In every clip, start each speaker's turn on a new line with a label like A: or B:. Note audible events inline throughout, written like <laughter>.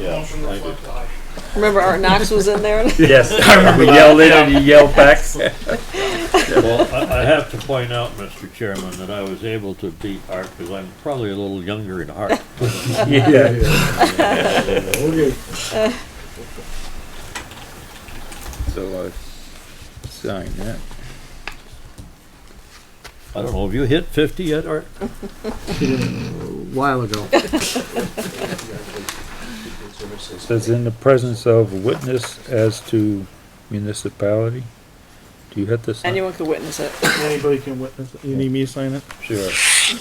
A: yeah,
B: motion
A: I agree.
B: reflect aye.
C: Remember Art Knox was in
D: <laughs>
C: there?
D: Yes, I remember
A: We yelled in and
D: you yelled back. <laughs>
A: Well, I, I have to point out, Mr. Chairman, that I was able to beat Art because I'm probably a little younger in heart.
D: Yeah. <laughs>
E: Okay.
D: So, uh, sign that.
A: I don't know, have you hit fifty yet, Art?
F: a while ago.
D: Says in the presence of witness as to municipality. Do you have to sign?
C: Anyone could witness it.
E: Anybody can witness it. You need me to sign it?
D: Sure.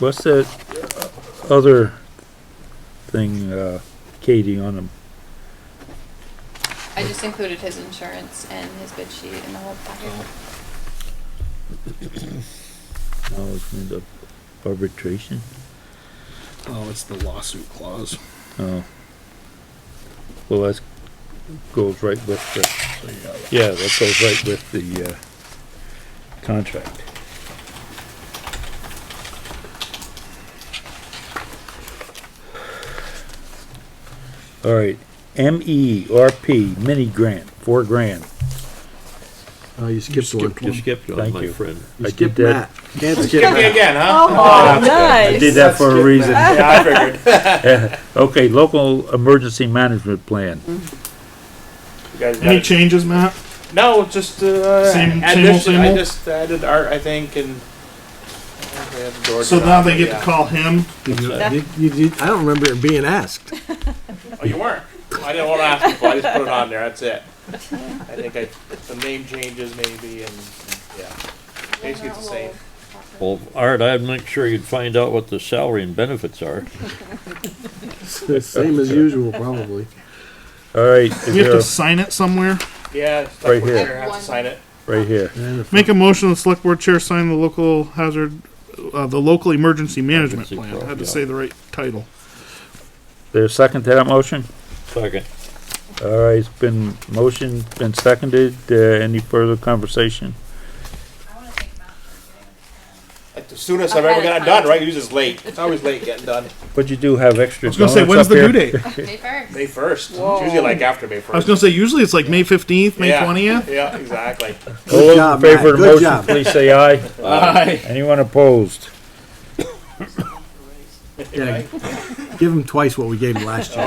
D: What's that other thing, uh, Katie on them?
G: I just included his insurance and his bid sheet in the whole packet.
D: Oh, it's in the arbitration?
F: Oh, it's the lawsuit clause.
D: Oh. Well, that's, goes right with the.
F: So you got it.
D: Yeah, that goes right with the, uh, contract. All right, M E R P mini grant, four grand.
F: Uh, you skipped one.
A: You skipped one,
D: Thank
A: my
D: you.
A: friend.
F: You
D: I did
F: skipped
D: that.
F: Matt. Can't skip Matt.
H: again, huh?
C: Oh, nice.
D: Ah, I did that for a reason.
H: Yeah, I <laughs> figured.
D: <laughs> Okay, local emergency management plan.
H: You guys got
E: Any
H: it.
E: changes, Matt?
H: No, just uh,
E: Same- same old,
H: addition.
E: same
H: I
E: old?
H: just added art, I think, and uh, they had the door
E: So
H: done,
E: now they
H: but
E: get
H: yeah.
E: to call him.
F: Did you- did- you- did- I don't remember it being asked.
H: Oh, you weren't. I didn't want to ask people. I just put it on there. That's it. I think I some name changes maybe, and yeah, basically it's the same.
A: Well, Art, I'd make sure you'd find out what the salary and benefits are.
F: Same as usual, probably.
D: All right, is
E: We have
D: there
E: to
D: a-
E: sign it somewhere.
H: Yeah, it's
D: Right
H: like we're
D: here.
H: gonna Have to sign it.
D: right here.
F: And if-
E: Make a motion, the select board chair sign the local hazard, uh, the local emergency management
A: Emergency
E: plan.
A: pro-
E: I had to
A: yeah.
E: say the right title.
D: There's a second to that motion?
A: Second.
D: All right, it's been motion, been seconded. Uh, any further conversation?
H: Like the soonest I've ever gotten done. Right, usually it's late. It's always late getting done.
D: But you do have extra
E: I was gonna say, when's
D: donuts up
E: the due
D: here?
E: date?
G: May first.
H: May first. It's usually like after May first.
E: I was gonna say, usually it's like May fifteenth, May
H: Yeah.
E: twentieth.
H: Yeah, exactly.
D: All those in
F: job,
D: favor of
F: Matt.
D: the
F: Good
D: motion,
F: job.
D: please say aye. Anyone opposed?
F: yeah, Give him twice what we gave him last year.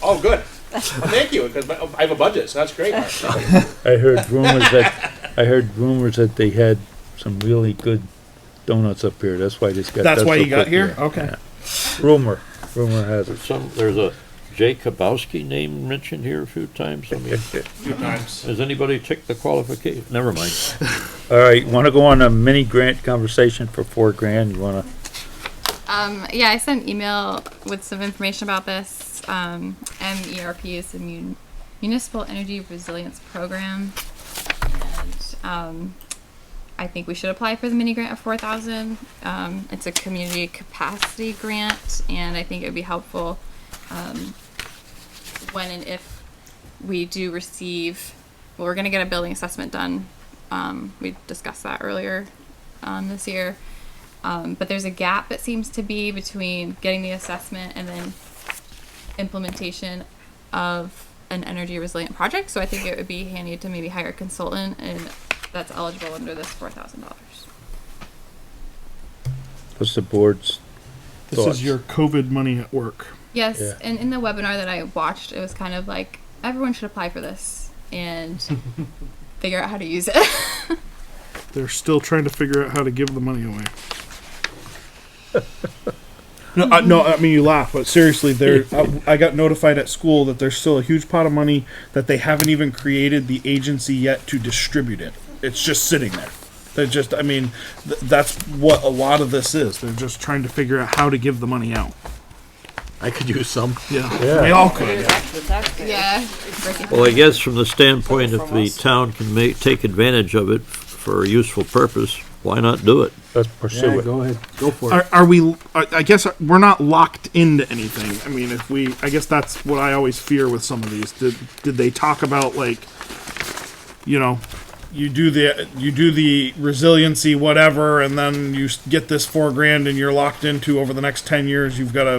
H: Oh, good. Well, thank you, because I have a budget, so that's great.
D: I heard rumors that, I heard rumors that they had some really good donuts up here. That's why this got.
E: That's why
D: so
E: you got
D: quick
E: here? Okay.
D: Rumor, rumor has it.
A: Some, there's a Jay Kabowski name mentioned here a few times. I mean,
H: Two times.
A: has anybody checked the qualification? Never mind.
D: All right, wanna go on a mini grant conversation for four grand? You wanna,
G: Um, yeah, I sent an email with some information about this. Um, MERP is the Mun- Municipal Energy Resilience Program. And, um, I think we should apply for the mini grant of four thousand. Um, it's a community capacity grant and I think it would be helpful, um, when and if we do receive, well, we're gonna get a building assessment done. Um, we discussed that earlier, um, this year. Um, but there's a gap that seems to be between getting the assessment and then implementation of an energy resilient project. So I think it would be handy to maybe hire a consultant, and that's eligible under this four thousand dollars.
D: what's the board's
E: This
D: Thoughts?
E: is your COVID money at work.
G: Yes,
D: Yeah.
G: and in the webinar that I watched, it was kind of like everyone should apply for this and figure out how to use it.
E: They're still trying to figure out how to give the money away. <laughs> No, I, no, I mean you laugh, but seriously, there. I, I got notified at school that there's still a huge pot of money that they haven't even created the agency yet to distribute it. It's just sitting there. They're just. I mean, th- that's what a lot of this is. They're just trying to figure out how to give the money out.
F: I could use some.
E: Yeah, we all could.
G: <laughs> yeah. Breaking-
A: Well, I guess from the standpoint, if the town can make, take advantage of it for a useful purpose, why not do it?
D: Let's
F: Yeah,
D: pursue it.
F: go ahead. Go for it.
E: Are, are we? I I guess uh, we're not locked into anything. I mean, if we, I guess that's what I always fear with some of these. Did did they talk about like, you know, you do the you do the resiliency whatever, and then you s- get this four grand, and you're locked into over the next ten years. You've got to